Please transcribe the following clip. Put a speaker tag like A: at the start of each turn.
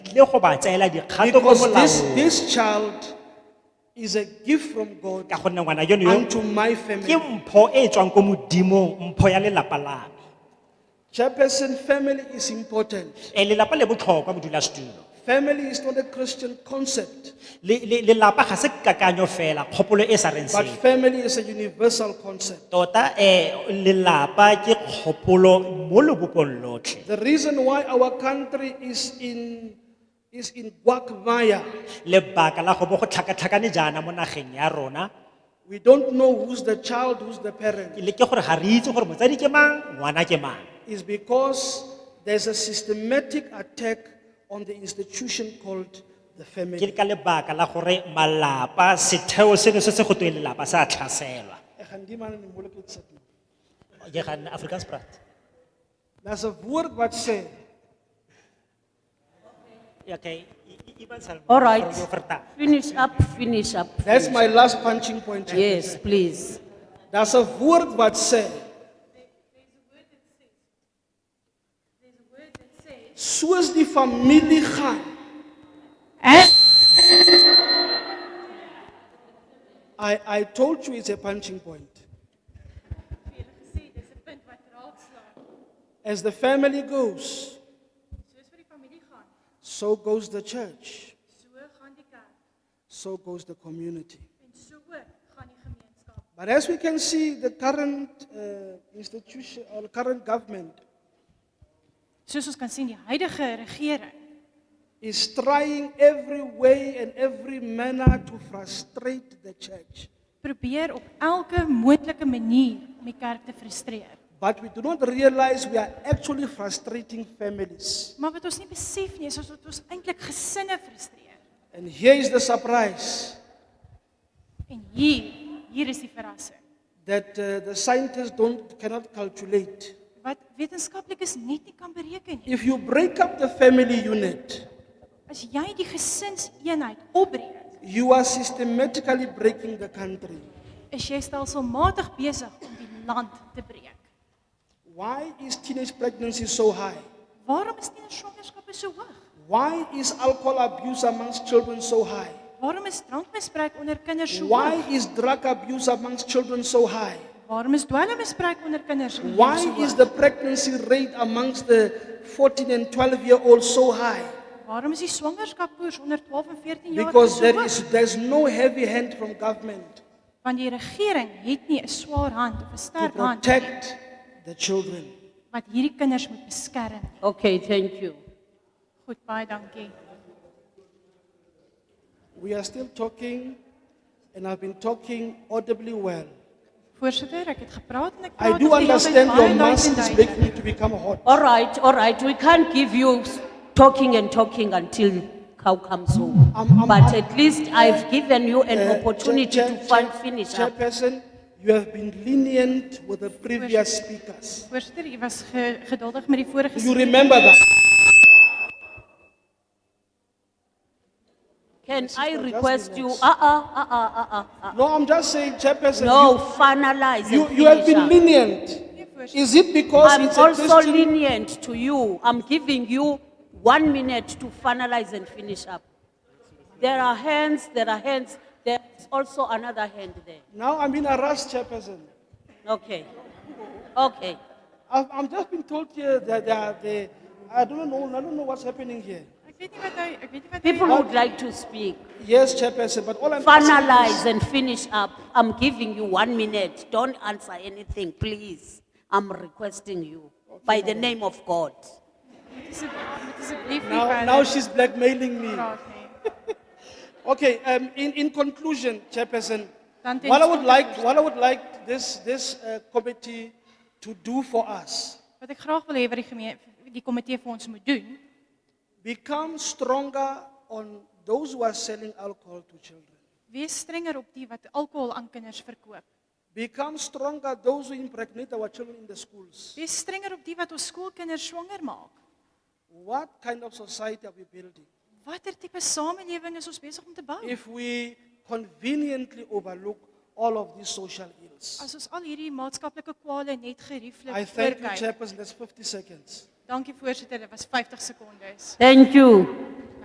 A: tlile go ba tseela dikgato mo
B: Because this,
A: molaong.
B: this child is a gift from God
A: Ka gonne ngwana yono yo,
B: unto my
A: ke
B: family.
A: mpho e tswang ko modimong mpho ya lelapa la me
B: Chairperson, family is important.
A: Eh, lelapa le botlhokwa modulasetulo
B: Family is not a Christian concept,
A: Le- le- lelapa ga se kakanyo fela kgopolo e sa reng
B: but
A: sepe
B: family is a universal concept.
A: tota eh lelapa ke kgopolo mo lebopong lotlhe
B: The reason why our country is in, is in Guacamaya,
A: lebaka la go bo go tlhakatlhakane jaana mo nageng ya rona
B: we don't know who's the child, who's the
A: ke
B: parent,
A: le ke gore ga re itse gore motsadi ke mang ngwana ke mang
B: is because there's a systematic attack on the institution called the
A: ke
B: family.
A: ka lebaka la gore malapa setheo seno se se go tweng lelapa se a tlhaselwa ke ga nna Afrikaans praat
B: There's a word what say,
A: okay Ya, I- I- Ivan Salmo,
C: All right.
A: gore yo vertaal.
C: Finish up, finish up.
B: that's my last punching point. Chairperson.
C: Yes, please.
B: Daar's 'n woord wat sê soos die familie gaan I I told you it's a punching point. As the family goes, so goes the church, so goes the community. But as we can see, the current uh, institution or current government
D: Soos ons kan sien, die huidige regering
B: is trying every way and every manner to frustrate the church.
D: probeer op elke moontlike manier om die kerk te frustreer.
B: But we do not realize we are actually frustrating families.
D: Maar wat ons nie besef nie, is ons dat ons eintlik gesinne frustreer.
B: And here is the surprise
D: En hier, hier is die verrassing.
B: that uh, the scientists don't, cannot calculate.
D: Wat wetenskaplikes net nie kan bereken nie.
B: If you break up the family unit,
D: As jy die gesinseenheid opbreek,
B: you are systematically breaking the country.
D: is jy stelselmatig besig om die land te breek.
B: Why is teenage pregnancy so high?
D: Waarom is tienerswangerskappe so hoog?
B: Why is alcohol abuse amongst children so high?
D: Waarom is drankmisbruik onder kinders so
B: Why
D: hoog?
B: is drug abuse amongst children so high?
D: Waarom is dwelmmisbruik onder kinders so
B: Why
D: hoog?
B: is the pregnancy rate amongst the 14 and 12 year olds so high?
D: Waarom is die swangerskapkoers onder 12 en 14 jaar
B: Because
D: so
B: there
D: hoog?
B: is there's no heavy hand from government
D: Want die regering het nie 'n swaar hand of 'n
B: to
D: sterk hand
B: protect the children.
D: wat hierdie kinders moet beskerm nie.
C: Okay, thank you.
D: Goed, baie dankie.
B: We are still talking, and I've been talking audibly well.
D: Voorsitter, ek het gepraat en ek praat
B: I do
D: nog die hele tyd
B: understand
D: baie
B: your
D: luid
B: mask
D: en
B: is
D: duidelik.
B: making me to become hot.
C: All right, all right. We can't give you s- talking and talking until cow comes home.
B: I'm- I'm-
C: But
B: I'm-
C: at least I've given you
B: Uh,
C: an opportunity
B: Chair-
C: to
B: Chair-
C: fin- finish up.
B: Chairperson, you have been lenient with the previous speakers.
D: Voorsitter, u was ge, geduldig met die vorige
B: You remember that?
C: Can I
B: just
C: request you,
B: relax.
C: uh-uh, uh-uh, uh-uh, uh-uh.
B: No, I'm just saying, Chairperson.
C: No,
B: you-
C: finalize
B: You,
C: and
B: you have
C: finish
B: been
C: up.
B: lenient.
D: voorsitter.
B: Is it because
C: I'm
B: it's a
C: also
B: Christian?
C: lenient to you. I'm giving you one minute to finalize and finish up. There are hands, there are hands, there's also another hand there.
B: Now I'm in a rush, Chairperson.
C: Okay, okay.
B: I've, I'm just been told here that they are the, I don't know, I don't know what's happening here.
D: Ek weet nie wat hy ek weet nie wat hy
C: People would like to speak.
B: Yes, Chairperson, but all I'm asking is-
C: Finalize and finish up. I'm giving you one minute. Don't answer anything, please. I'm requesting you by the name of God.
D: asseblief asseblief nie
B: Now, now she's blackmailing me.
D: praat nie.
B: Okay, um, in, in conclusion, Chairperson,
D: Dan ten
B: what I would
D: slotte-
B: like, what I would like this, this uh, committee to do for us,
D: Wat ek graag wil hê wat die gemeen die komitee vir ons moet doen,
B: become stronger on those who are selling alcohol to children.
D: wees strenger op die wat alkohol aan kinders verkoop.
B: Become stronger those who impregnate our children in the schools.
D: Wees strenger op die wat ons skoolkinders swanger maak.
B: What kind of society are we building?
D: Watter tipe samelewing is ons besig om te bou?
B: if we conveniently overlook all of these social ills.
D: As ons al hierdie maatskaplike kwale net gerieflik
B: I thank you,
D: oorkyk.
B: Chairperson, that's 50 seconds.
D: Dankie voorsitter, dit was 50 sekondes.
C: Thank you.